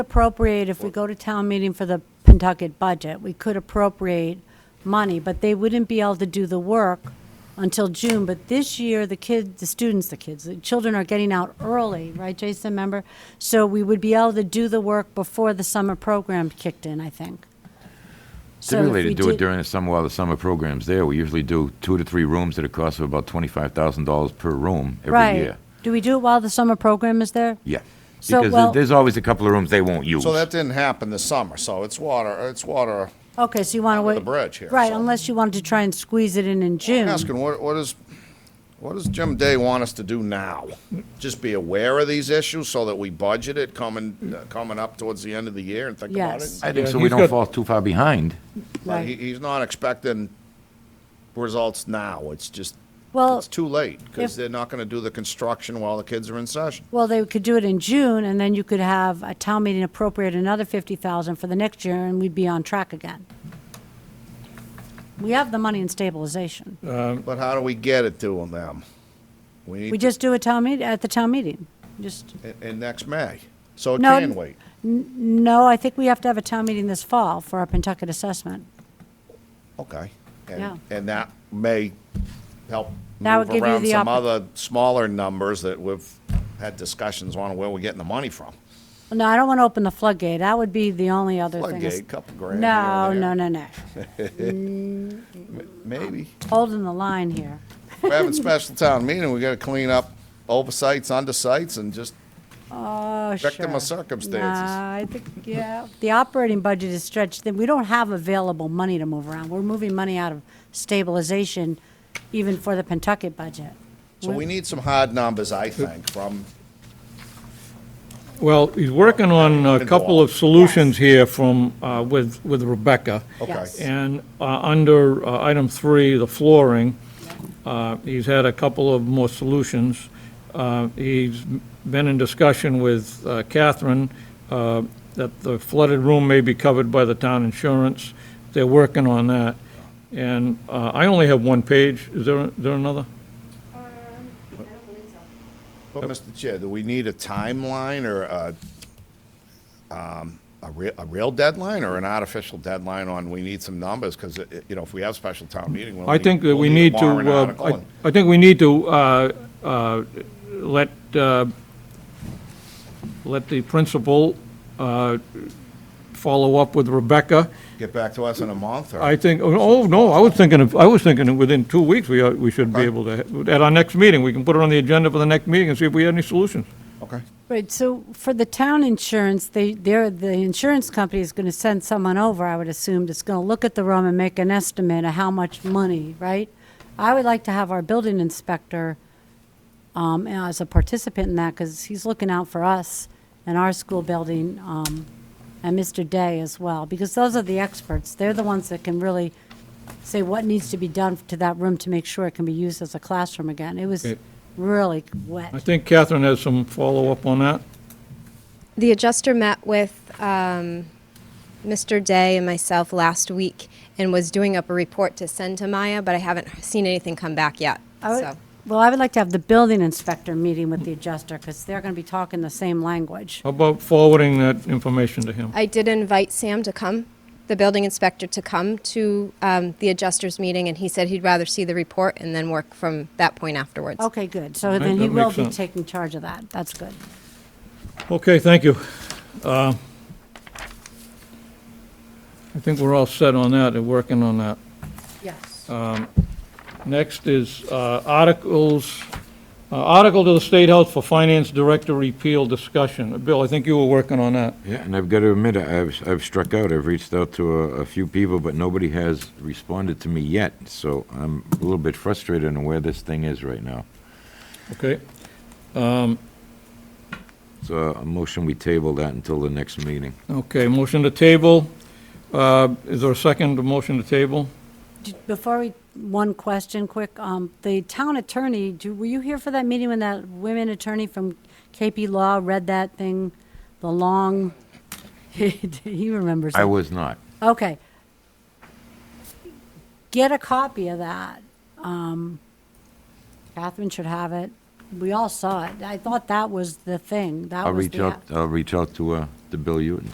appropriate, if we go to town meeting for the Pentucket budget, we could appropriate money, but they wouldn't be able to do the work until June. But this year, the kid, the students, the kids, the children are getting out early, right, Jason, remember? So we would be able to do the work before the summer program kicked in, I think. So if Typically, we to do it did- during the summer while the summer program's there. We usually do two to three rooms at a cost of about twenty-five thousand dollars per room every Right. year. Do we do it while the summer program is there? Yeah. So, Because well- there- there's always a couple of rooms they won't use. So that didn't happen this summer, so it's water, it's water. Okay, so you want to wait. the bridge here, Right, so- unless you wanted to try and squeeze it in in June. I'm asking, what, what is, what does Jim Day want us to do now? Just be aware of these issues so that we budget it coming, uh, coming up towards the end of the year and think about Yes. it? I think Yeah, so we he's don't got- fall too far behind. But Right. he, he's not expecting results now, it's just, Well, it's too late, because if- they're not gonna do the construction while the kids are in session. Well, they could do it in June, and then you could have a town meeting appropriate another fifty thousand for the next year, and we'd be on track again. We have the money in stabilization. But how do we get it to them? We We need, just do a town meet, at the town meeting. Just, in, in next May, so it No, can wait. no, I think we have to have a town meeting this fall for our Pentucket assessment. Okay. And- Yeah. And that may help That would move give you around the some oppor- other smaller numbers that we've had discussions on where we're getting the money from. No, I don't want to open the floodgate. That would be the only other thing. is- Floodgate, couple grand. here No, and no, there. no, no. Maybe. Holding the line here. We're having special town meeting, we gotta clean up oversights, undersights, and just, Oh, sure. Victim of circumstances. Nah, I think, yeah, the operating budget is stretched, then we don't have available money to move around. We're moving money out of stabilization even for the Pentucket budget. so we need some hard numbers, I think, from, Well, he's working on a couple of solutions here from, uh, with with Rebecca. okay. Yes. And uh, under uh, item three, the flooring, uh, he's had a couple of more solutions. Uh, He's been in discussion with uh, Catherine uh, that the flooded room may be covered by the town insurance. They're working on that. And uh, I only have one page. Is there, is there another? But, Mr. Chair, do we need a timeline or a, um, a real, a real deadline or an artificial deadline on, we need some numbers? Because, you know, if we have special town meeting, we'll I think that we'll we need a to, warrant uh, article I and- I think we need to uh, uh, let, uh, let the principal uh, follow up with Rebecca. Get back to us in a month, or? I think, oh, no, I was thinking, of I was thinking of within two weeks, we, are- we should be Okay. able to, at our next meeting, we can put it on the agenda for the next meeting and see if we have any solutions. Okay. Right, so for the town insurance, they, they're, the insurance company is gonna send someone over, I would assume, that's gonna look at the room and make an estimate of how much money, right? I would like to have our building inspector, um, as a participant in that, because he's looking out for us and our school building, um, and Mr. Day as well, because those are the experts. They're the ones that can really say what needs to be done to that room to make sure it can be used as a classroom again. It was Okay. really wet. I think Catherine has some follow-up on that. The adjuster met with um, Mr. Day and myself last week and was doing up a report to send to Maya, but I haven't seen anything come back yet. I would- so. Well, I would like to have the building inspector meeting with the adjuster, because they're going to be talking the same language. How about forwarding that information to him? I did invite Sam to come, the building inspector, to come to um, the adjuster's meeting, and he said he'd rather see the report and then work from that point afterwards. Okay, good. So Oh. Right, then he that will makes be sense. taking charge of that. That's good. Okay, thank you. Uh, I think we're all set on that and working on that. Um, Yes. Next is uh, articles, uh, article to the State House for Finance Director repeal discussion. Uh, Bill, I think you were working on that. Yeah, and I've got to admit, I've, I've struck out. I've reached out to a, a few people, but nobody has responded to me yet. So I'm a little bit frustrated on where this thing is right now. Okay, So a motion, we table that until the next meeting. okay, motion to table. Uh, Is there a second to motion to table? Before we, one question quick. Um, The town attorney, do- were you here for that meeting when that women attorney from KP Law read that thing, the long, he remembers. I it. was not. Okay. Get a copy of that. Um, Catherine should have it. we all saw it. I thought that was the thing. That I'll was reach the out, I'll reach out to, uh, to Bill Uton,